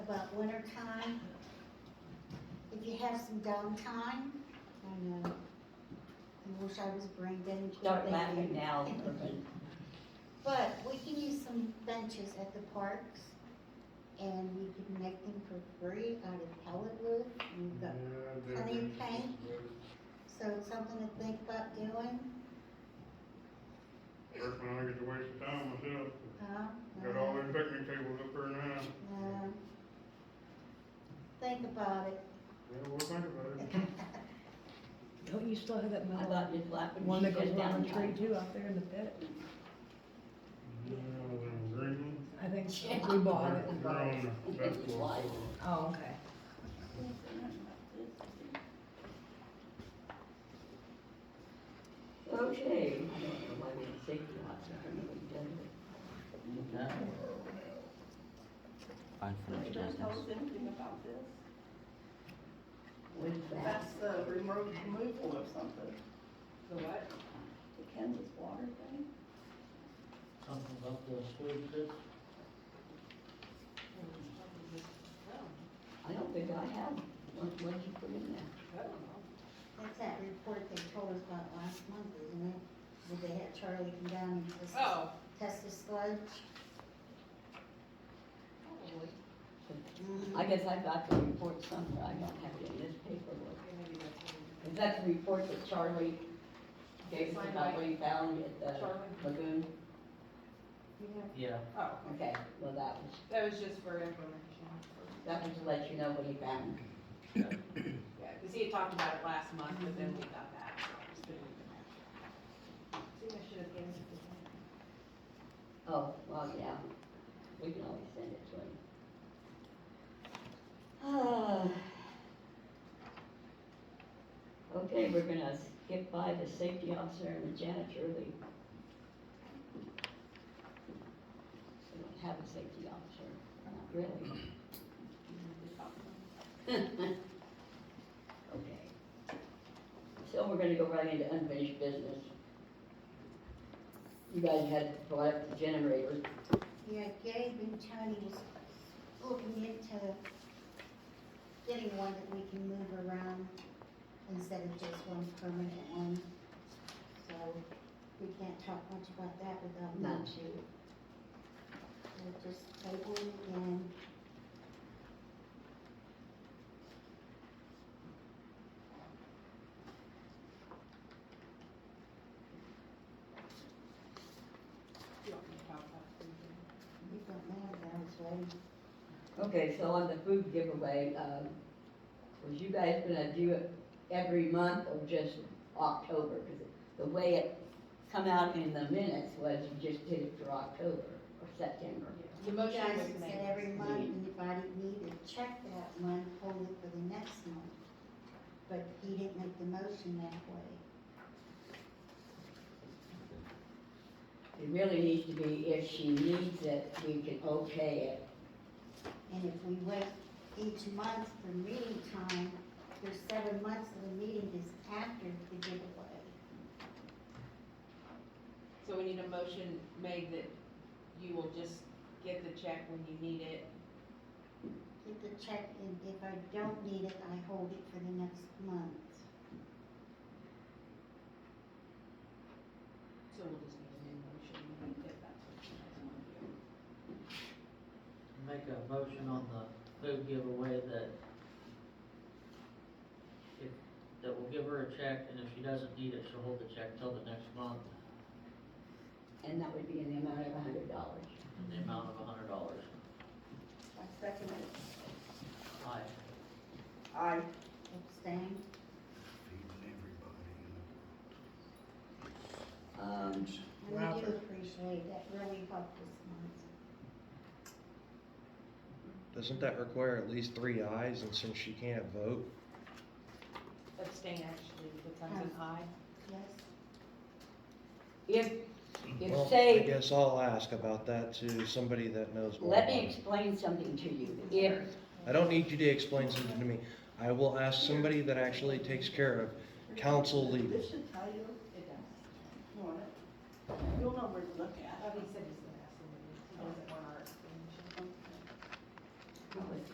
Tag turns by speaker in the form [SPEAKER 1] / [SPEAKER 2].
[SPEAKER 1] about winter time. If you have some downtime, I know. I wish I was brain dead and
[SPEAKER 2] Start laughing
[SPEAKER 1] thinking.
[SPEAKER 2] now.
[SPEAKER 1] But we can use some benches at the parks and we can make them for free out of pellet wood. We've got Honey paint. So it's something to think about doing,
[SPEAKER 3] First one I get to waste of time myself.
[SPEAKER 1] huh?
[SPEAKER 3] Got all them picnic tables up there now.
[SPEAKER 1] No. Think about it.
[SPEAKER 3] Yeah, we'll think about it.
[SPEAKER 4] Don't you still have that
[SPEAKER 2] I
[SPEAKER 4] metal
[SPEAKER 2] thought you'd laugh when
[SPEAKER 4] one
[SPEAKER 2] she
[SPEAKER 4] that goes
[SPEAKER 2] said
[SPEAKER 4] around the tree
[SPEAKER 2] downtime.
[SPEAKER 4] too out there in the pit?
[SPEAKER 3] Yeah, them green ones.
[SPEAKER 4] I think so. we bought it.
[SPEAKER 3] They're on the basketball court.
[SPEAKER 4] Oh, okay.
[SPEAKER 2] Okay. I don't know why we didn't think of that. I don't know what done with it.
[SPEAKER 5] Did
[SPEAKER 6] Unfinished
[SPEAKER 5] I tell
[SPEAKER 6] business.
[SPEAKER 5] us anything about this?
[SPEAKER 2] With that,
[SPEAKER 5] That's the remote removal of something. The what? The Kansas water thing?
[SPEAKER 7] Something about the sweet fish?
[SPEAKER 2] I don't think I have. What, what did you put in there?
[SPEAKER 1] That's that report they told us about last month, isn't it? Where they had Charlie come down and test,
[SPEAKER 8] Oh,
[SPEAKER 1] test the sludge.
[SPEAKER 8] probably.
[SPEAKER 2] I guess I got the report somewhere, I don't have it in this paperwork.
[SPEAKER 8] Maybe that's what it
[SPEAKER 2] Is that the report that Charlie gave us about what he found at the
[SPEAKER 8] Charlie?
[SPEAKER 2] lagoon?
[SPEAKER 7] Yeah.
[SPEAKER 8] is. Oh,
[SPEAKER 2] Okay, well, that was,
[SPEAKER 8] that was just for information.
[SPEAKER 2] that was to let you know what he found.
[SPEAKER 8] Yeah, because he had talked about it last month, but then we got that, so I just didn't even. See, I should have given it to him.
[SPEAKER 2] Oh, well, yeah, we can always send it to him. Ah. Okay, we're gonna skip by the safety officer and the janitor, the. We don't have a safety officer, not really. Okay. So we're gonna go right into unfinished business. You guys had brought up the generator.
[SPEAKER 1] Yeah, Gabe and Tony was looking into getting one that we can move around instead of just one permanent one. So we can't talk much about that without
[SPEAKER 2] No.
[SPEAKER 1] not you. We'll just table it again.
[SPEAKER 8] You want me to talk about it?
[SPEAKER 1] You don't know that, it's ready.
[SPEAKER 2] Okay, so on the food giveaway, um, was you guys gonna do it every month or just October? Cause the way it come out in the minutes was you just did it for October or September.
[SPEAKER 8] The
[SPEAKER 1] You
[SPEAKER 8] motion
[SPEAKER 1] guys
[SPEAKER 8] was
[SPEAKER 1] said
[SPEAKER 8] made.
[SPEAKER 1] every month, anybody needed, check that month, hold it for the next month. But he didn't make the motion that way.
[SPEAKER 2] It really needs to be, if she needs it, we can okay it.
[SPEAKER 1] And if we wait each month for meeting time, there's seven months of the meeting is after the giveaway.
[SPEAKER 8] So we need a motion made that you will just get the check when you need it.
[SPEAKER 1] Get the check, and if I don't need it, I hold it for the next month.
[SPEAKER 8] So we'll just need a new motion, and if that's what you guys want to
[SPEAKER 7] Make
[SPEAKER 8] do.
[SPEAKER 7] a motion on the food giveaway that if, that will give her a check, and if she doesn't need it, she'll hold the check till the next month
[SPEAKER 2] And that would be in the amount of a hundred dollars.
[SPEAKER 7] in the amount of a hundred dollars.
[SPEAKER 5] I second it.
[SPEAKER 7] Aye.
[SPEAKER 5] Aye.
[SPEAKER 1] Abstain?
[SPEAKER 2] Um,
[SPEAKER 1] And I do appreciate that, really helped this month.
[SPEAKER 9] Doesn't that require at least three eyes, and since she can't vote,
[SPEAKER 8] Abstain actually becomes an aye.
[SPEAKER 1] Yes?
[SPEAKER 2] if,
[SPEAKER 9] well,
[SPEAKER 2] if
[SPEAKER 9] I
[SPEAKER 2] say,
[SPEAKER 9] guess I'll ask about that to somebody that knows more.
[SPEAKER 2] let
[SPEAKER 9] about
[SPEAKER 2] me
[SPEAKER 9] it.
[SPEAKER 2] explain something to you. If
[SPEAKER 9] I don't need you to explain something to me. I will ask somebody that actually takes care of council legal.
[SPEAKER 5] This should tell you,
[SPEAKER 8] It does.
[SPEAKER 5] you want it? You'll know where to look at.
[SPEAKER 8] Oh, he said